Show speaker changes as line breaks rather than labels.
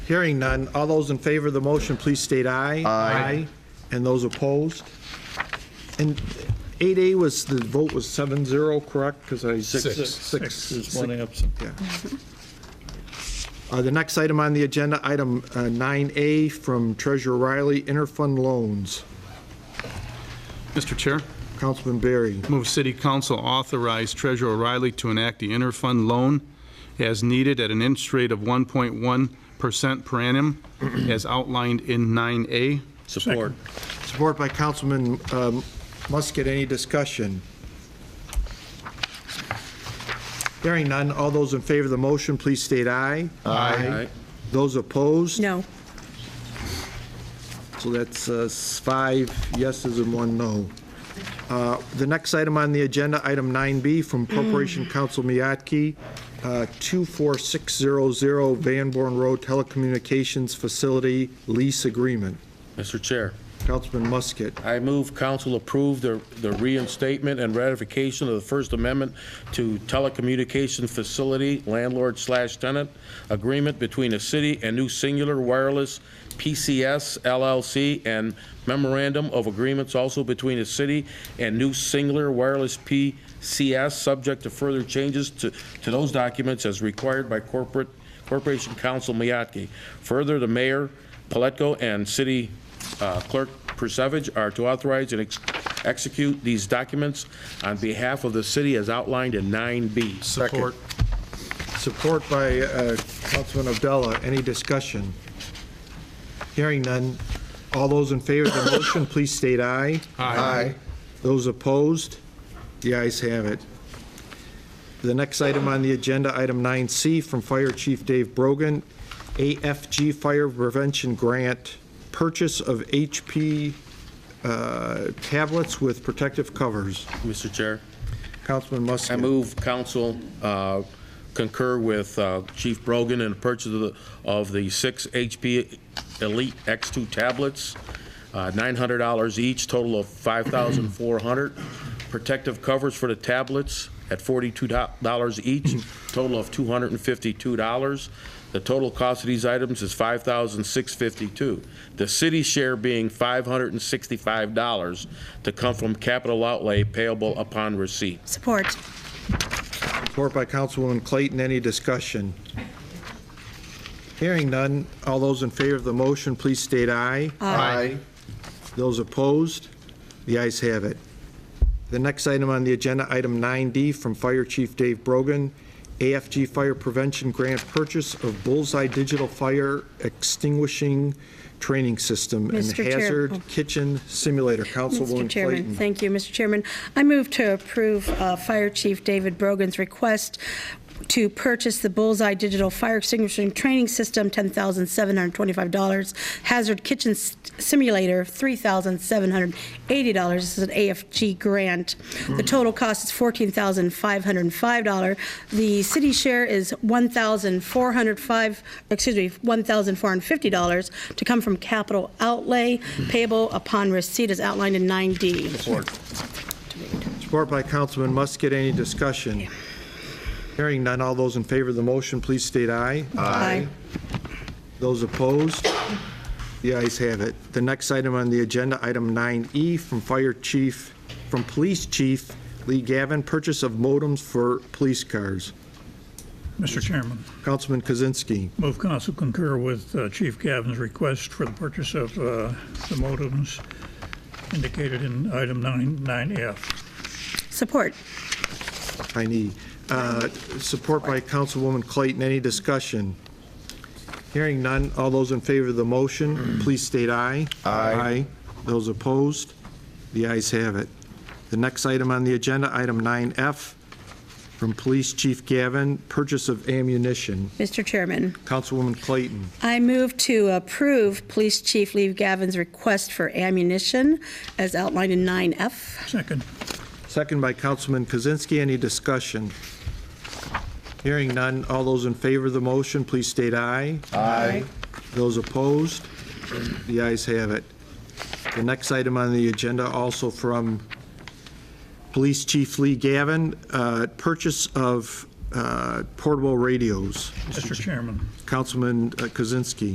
Hearing none, all those in favor of the motion, please state aye. Aye. And those opposed? And 8A was, the vote was 7-0, correct? Because I...
Six.
Six is
There's one absent.
Yeah. Uh, The next item on the agenda, item uh, 9A from Treasurer Riley, interfund loans.
Mr. Chair,
Councilman Berry.
move City Council authorize Treasurer O'Reilly to enact the interfund loan as needed at an interest rate of 1.1% per annum as outlined in 9A.
Support.
Support by Councilman um, Musket. Any discussion? Hearing none. All those in favor of the motion, please state aye.
Aye.
Those opposed?
No.
So that's uh, five yeses and one no. Uh, The next item on the agenda, item 9B, from Corporation Counsel Miyake, uh, 24600 Van Born Road Telecommunications Facility Lease Agreement.
Mr. Chair,
Councilman Musket.
I move council approve the the reinstatement and ratification of the First Amendment to telecommunication facility landlord slash tenant agreement between the city and New Singular Wireless PCS LLC and memorandum of agreements also between the city and New Singular Wireless PCS, subject to further changes to to those documents as required by corporate Corporation Counsel Miyake. Further, the mayor, Pletko, and city uh, clerk Persevage are to authorize and ex- execute these documents on behalf of the city as outlined in 9B.
Support.
Support by uh, Councilman Abdullah. Any discussion? Hearing none. All those in favor of the motion, please state aye. Aye. Those opposed? The ayes have it. The next item on the agenda, item 9C, from Fire Chief Dave Brogan, AFG Fire Prevention Grant, purchase of HP uh, tablets with protective covers.
Mr. Chair,
Councilman Musket.
I move council uh, concur with uh, Chief Brogan in the purchase of the, of the six HP Elite X2 tablets, uh, $900 each, total of 5,400. Protective covers for the tablets at $42 each, total of $252. The total cost of these items is $5,652. The city share being $565 to come from capital outlay payable upon receipt.
Support.
Support by Councilwoman Clayton. Any discussion? Hearing none. All those in favor of the motion, please state aye. Aye. Those opposed? The ayes have it. The next item on the agenda, item 9D, from Fire Chief Dave Brogan, AFG Fire Prevention Grant Purchase of Bullseye Digital Fire Extinguishing Training System and
Mr. Chair-
Hazard Kitchen Simulator.
Mr.
Councilwoman
Chairman,
Clayton.
thank you, Mr. Chairman. I move to approve uh, Fire Chief David Brogan's request to purchase the Bullseye Digital Fire Extinguishing Training System, $10,725, Hazard Kitchen S- Simulator, $3,780. This is an AFG grant. The total cost is $14,505. The city share is $1,405, excuse me, $1,450 to come from capital outlay payable upon receipt as outlined in 9D.
Support by Councilman Musket. Any discussion? Hearing none. All those in favor of the motion, please state aye.
Aye.
Those opposed? The ayes have it. The next item on the agenda, item 9E, from Fire Chief, from Police Chief Lee Gavin, purchase of modems for police cars.
Mr. Chairman,
Councilman Kozinski.
move council concur with uh, Chief Gavin's request for the purchase of uh, the modems indicated in item 9, 9F.
Support.
I need. Uh, Support by Councilwoman Clayton. Any discussion? Hearing none. All those in favor of the motion, please state aye. Aye. Those opposed? The ayes have it. The next item on the agenda, item 9F, from Police Chief Gavin, purchase of ammunition.
Mr. Chairman,
Councilwoman Clayton.
I move to approve Police Chief Lee Gavin's request for ammunition as outlined in 9F.
Second.
Second by Councilman Kozinski. Any discussion? Hearing none. All those in favor of the motion, please state aye. Aye. Those opposed? The ayes have it. The next item on the agenda, also from Police Chief Lee Gavin, uh, purchase of uh, portable radios.
Mr. Chairman.
Councilman uh, Kozinski.